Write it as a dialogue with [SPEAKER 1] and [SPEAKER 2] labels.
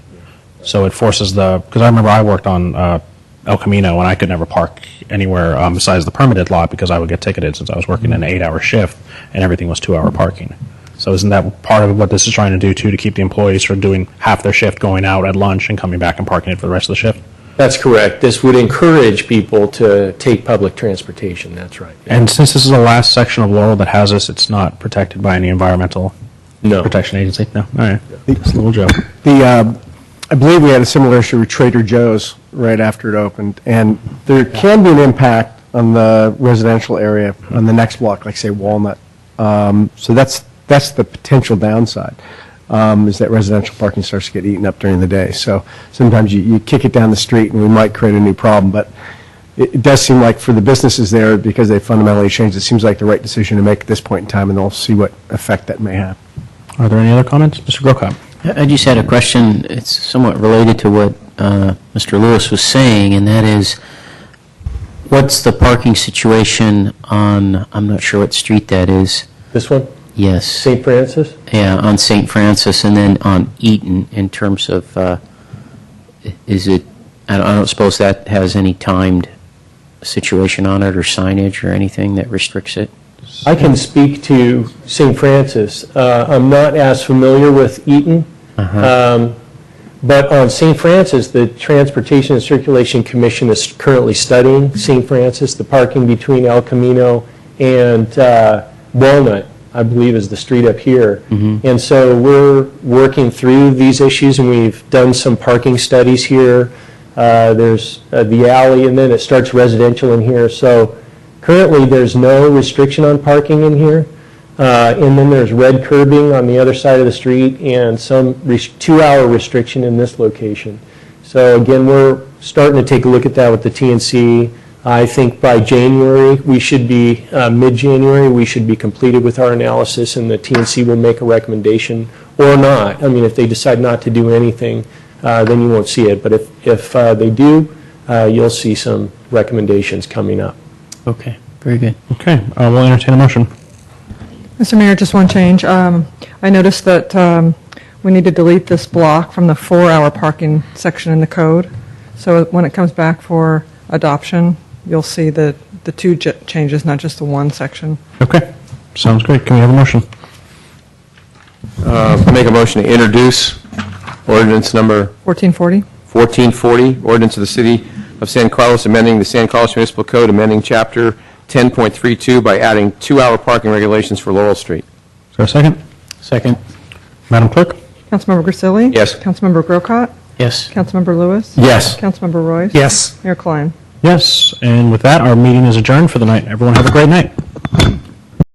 [SPEAKER 1] So it forces the, because I remember I worked on uh, El Camino and I could never park anywhere um, besides the permitted lot because I would get ticketed since I was working an eight hour shift and everything was two hour parking. So isn't that part of what this is trying to do too, to keep the employees from doing half their shift, going out at lunch and coming back and parking it for the rest of the shift?
[SPEAKER 2] That's correct. This would encourage people to take public transportation, that's right.
[SPEAKER 1] And since this is the last section of Laurel that has this, it's not protected by any environmental
[SPEAKER 2] No.
[SPEAKER 1] protection agency? No? All right. Just a little joke.
[SPEAKER 3] The, uh, I believe we had a similar issue with Trader Joe's right after it opened, and there can be an impact on the residential area on the next block, like say Walnut. Um, So that's, that's the potential downside, um, is that residential parking starts to get eaten up during the day. So sometimes you, you kick it down the street, and we might create a new problem, but it it does seem like for the businesses there, because they fundamentally changed, it seems like the right decision to make at this point in time, and we'll see what effect that may have.
[SPEAKER 1] Are there any other comments? Mr. Grocott?
[SPEAKER 4] I just had a question, it's somewhat related to what uh, Mr. Lewis was saying, and that is, what's the parking situation on, I'm not sure what street that is,
[SPEAKER 2] This one,
[SPEAKER 4] yes,
[SPEAKER 2] St. Francis?
[SPEAKER 4] yeah, on St. Francis, and then on Eaton, in terms of, uh, is it, I don't- I don't suppose that has any timed situation on it, or signage, or anything that restricts it?
[SPEAKER 2] I can speak to St. Francis. Uh, I'm not as familiar with Eaton, Um, but on St. Francis, the Transportation and Circulation Commission is currently studying St. Francis, the parking between El Camino and uh, Walnut, I believe is the street up here. And so we're working through these issues, and we've done some parking studies here. Uh, There's uh, the alley, and then it starts residential in here. So currently, there's no restriction on parking in here. Uh, And then there's red curbing on the other side of the street and some res- two-hour restriction in this location. So again, we're starting to take a look at that with the TNC. I think by January, we should be, uh, mid-January, we should be completed with our analysis and the TNC will make a recommendation or not. I mean, if they decide not to do anything, uh, then you won't see it. But if, if uh, they do, uh, you'll see some recommendations coming up.
[SPEAKER 4] Okay, very good.
[SPEAKER 1] Okay, uh, we'll entertain a motion.
[SPEAKER 5] Mr. Mayor, just one change. Um, I noticed that um, we need to delete this block from the four-hour parking section in the code. So when it comes back for adoption, you'll see the, the two j- changes, not just the one section.
[SPEAKER 1] Okay, sounds great. Can we have a motion?
[SPEAKER 6] Uh, Make a motion to introduce ordinance number
[SPEAKER 5] 1440?
[SPEAKER 6] 1440, ordinance of the City of San Carlos amending the San Carlos Municipal Code, amending Chapter 10.32 by adding two-hour parking regulations for Laurel Street.
[SPEAKER 1] Is there a second?
[SPEAKER 4] Second.
[SPEAKER 1] Madam Clerk?
[SPEAKER 5] Councilmember Grisilli?
[SPEAKER 6] Yes.
[SPEAKER 5] Councilmember Grocott?
[SPEAKER 4] Yes.
[SPEAKER 5] Councilmember Lewis?
[SPEAKER 1] Yes.
[SPEAKER 5] Councilmember Royce?
[SPEAKER 3] Yes.
[SPEAKER 5] Mayor Klein?
[SPEAKER 1] Yes, and with that, our meeting is adjourned for the night. Everyone have a great night.